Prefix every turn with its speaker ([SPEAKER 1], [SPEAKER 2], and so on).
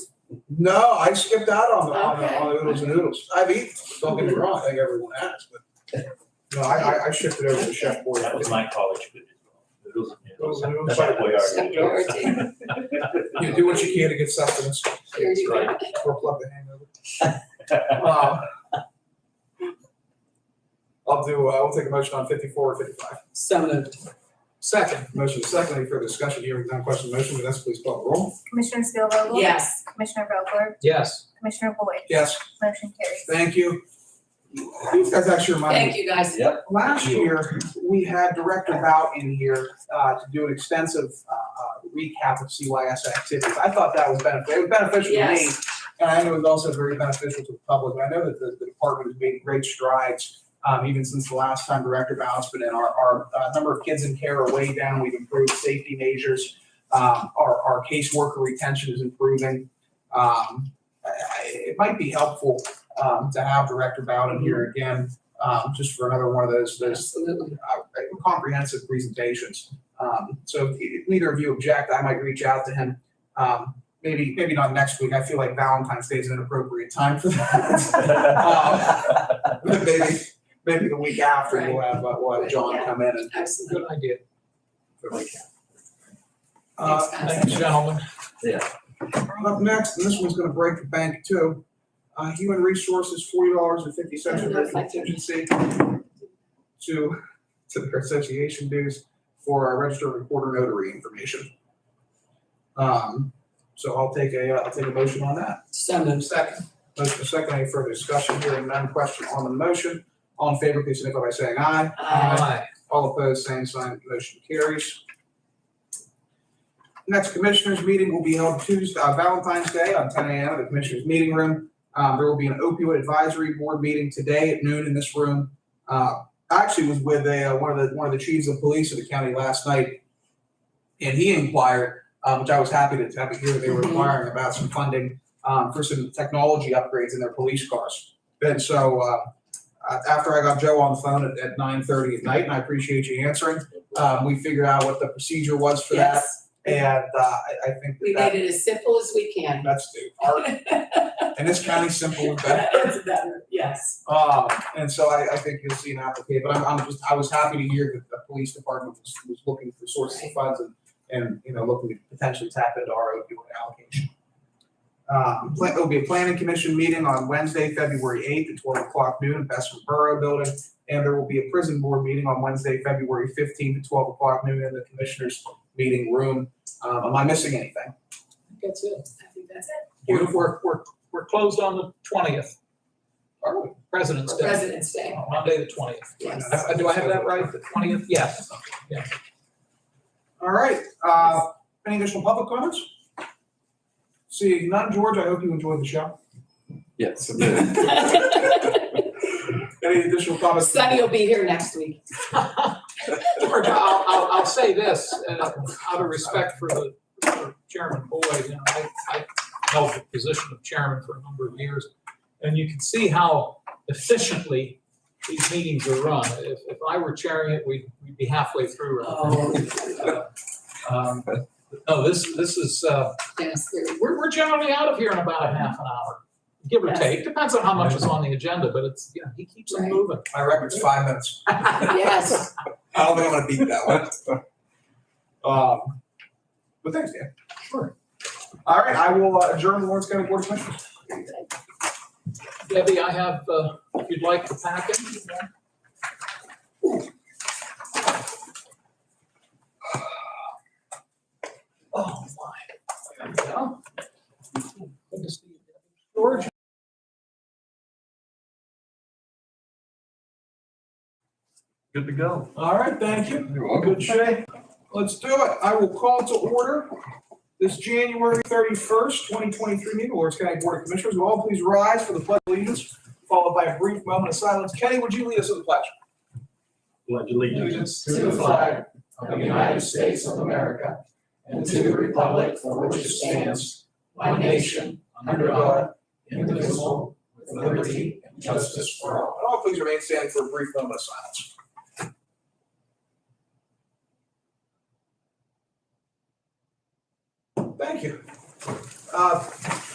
[SPEAKER 1] No, I skipped out on the, on the, on the
[SPEAKER 2] Okay.
[SPEAKER 1] oodles and noodles. I've eaten, them, don't get me wrong, I think everyone has, but. No, I, I, I shifted over to Chef Boyardee.
[SPEAKER 3] That was my college food as well. Noodles and
[SPEAKER 1] Those
[SPEAKER 3] noodles.
[SPEAKER 1] are noodles.
[SPEAKER 3] Chef Boyardee.
[SPEAKER 2] Boyardee.
[SPEAKER 1] You do what you can to get sustenance,
[SPEAKER 2] Here you go.
[SPEAKER 3] Right.
[SPEAKER 1] or plug the hangover. Um, I'll do, uh, I'll take a motion on fifty-four or fifty-five.
[SPEAKER 4] So moved.
[SPEAKER 1] Second, motion is second, any further discussion, hearing none, question on the motion, Vanessa, please call the roll.
[SPEAKER 5] Commissioner Spielvogel?
[SPEAKER 2] Yes.
[SPEAKER 5] Commissioner Vogler?
[SPEAKER 4] Yes.
[SPEAKER 5] Commissioner Boyd?
[SPEAKER 1] Yes,
[SPEAKER 5] Motion carries.
[SPEAKER 1] thank you. These guys actually remind me.
[SPEAKER 2] Thank you, guys.
[SPEAKER 1] Last year, we had Director Bout in here uh, to do an extensive uh, uh, recap of CYS activities. I thought that was beneficial, it was beneficial to me.
[SPEAKER 2] Yes.
[SPEAKER 1] And I know it was also very beneficial to the public. And I know that the the department has made great strides, um, even since the last time Director Bout's been in. Our, our uh, number of kids in care are way down. We've improved safety measures. Um, Our, our caseworker retention is improving. Um, I- I- It might be helpful um, to have Director Bout in here again, um, just for another one of those, those
[SPEAKER 4] Absolutely.
[SPEAKER 1] uh, comprehensive presentations. Um, so if- if neither of you object, I might reach out to him. Um, maybe, maybe not next week. I feel like Valentine's Day is an appropriate time for that. But maybe, maybe the week after we'll have, uh, we'll have John come in and.
[SPEAKER 2] Absolutely.
[SPEAKER 4] Good idea.
[SPEAKER 1] Uh,
[SPEAKER 2] Thanks, guys.
[SPEAKER 4] Thank you, gentlemen.
[SPEAKER 1] up next, and this one's gonna break the bank too. Uh, human resources, forty dollars and fifty cents of their contingency to, to their association dues for our registered recorder notary information. Um, so I'll take a, uh, I'll take a motion on that.
[SPEAKER 4] So moved.
[SPEAKER 1] Second. Motion is second, any further discussion, hearing none, question on the motion. All in favor, please signify by saying aye.
[SPEAKER 2] Aye.
[SPEAKER 1] All opposed, same sign, motion carries. Next commissioners' meeting will be held Tuesday, uh, Valentine's Day on ten AM at the commissioners' meeting room. Um, there will be an opioid advisory board meeting today at noon in this room. Uh, I actually was with a, uh, one of the, one of the chiefs of police of the county last night. And he inquired, um, which I was happy to, happy to hear they were inquiring about some funding, um, for some technology upgrades in their police cars. And so, uh, uh, after I got Joe on the phone at, at nine thirty at night, and I appreciate you answering. Um, we figured out what the procedure was for that,
[SPEAKER 2] Yes,
[SPEAKER 1] and, uh, I, I think
[SPEAKER 2] we
[SPEAKER 1] that
[SPEAKER 2] made it as simple as we can.
[SPEAKER 1] that's the art, and it's kind of simple and better.
[SPEAKER 2] It's better, yes.
[SPEAKER 1] Um, and so I, I think you'll see an application, but I'm, I'm just, I was happy to hear that the police department was, was looking for sources of funds and, and, you know, looking to potentially tap into our opioid allocation. Um, pla- there'll be a planning commission meeting on Wednesday, February eighth at twelve o'clock noon in Bessemer Borough Building. And there will be a prison board meeting on Wednesday, February fifteenth at twelve o'clock noon in the commissioners' meeting room. Um, am I missing anything?
[SPEAKER 4] I think That's it.
[SPEAKER 2] I think that's it.
[SPEAKER 4] We're,
[SPEAKER 1] Beautiful,
[SPEAKER 4] we're, we're, we're closed on the twentieth,
[SPEAKER 1] are we?
[SPEAKER 4] President's Day,
[SPEAKER 2] President's Day,
[SPEAKER 4] Monday, the twentieth.
[SPEAKER 2] yes.
[SPEAKER 4] Do I have that right? The twentieth? Yes.
[SPEAKER 1] All right, uh, any additional public comments? Seeing none, George, I hope you enjoyed the show.
[SPEAKER 6] Yes.
[SPEAKER 1] Any additional comments?
[SPEAKER 2] Sunny will be here next week.
[SPEAKER 4] George, I'll, I'll, I'll say this, uh, out of respect for the for Chairman Boyd, you know, I, I held the position of chairman for a number of years. And you can see how efficiently these meetings are run. If, if I were chairing it, we'd, we'd be halfway through. Uh,
[SPEAKER 2] Oh,
[SPEAKER 4] Um, No, this, this is, uh,
[SPEAKER 2] yes, there-
[SPEAKER 4] we're, we're generally out of here in about a half an hour, give or
[SPEAKER 2] Yes.
[SPEAKER 4] take. Depends on how much is on the agenda, but it's, you know, he keeps them
[SPEAKER 2] Right.
[SPEAKER 4] moving.
[SPEAKER 1] My record's five minutes.
[SPEAKER 2] yes.
[SPEAKER 1] I don't think I'm gonna beat that one. Um, but thanks, Dan. Sure. All right, I will uh, adjourn the Lawrence County Board of Commissioners.
[SPEAKER 4] Debbie, I have, uh, if you'd like the packet. Oh, my. There we go. Good to see you, Debbie. George,
[SPEAKER 6] Good to go.
[SPEAKER 1] All right, thank you.
[SPEAKER 6] You're
[SPEAKER 1] Good shape. Let's do it. I will call to order this January thirty-first, twenty twenty-three meeting, of Lawrence County Board of Commissioners. Will all please rise for the pledge of allegiance, followed by a brief moment of silence. Kenny, would you lead us in the pledge?
[SPEAKER 3] Pledge allegiance
[SPEAKER 7] to the flag of the United States of America and to the republic for which it stands, one nation, under God, indivisible, with liberty and justice for all.
[SPEAKER 1] And all please remain standing for a brief moment of silence. Thank you. Uh,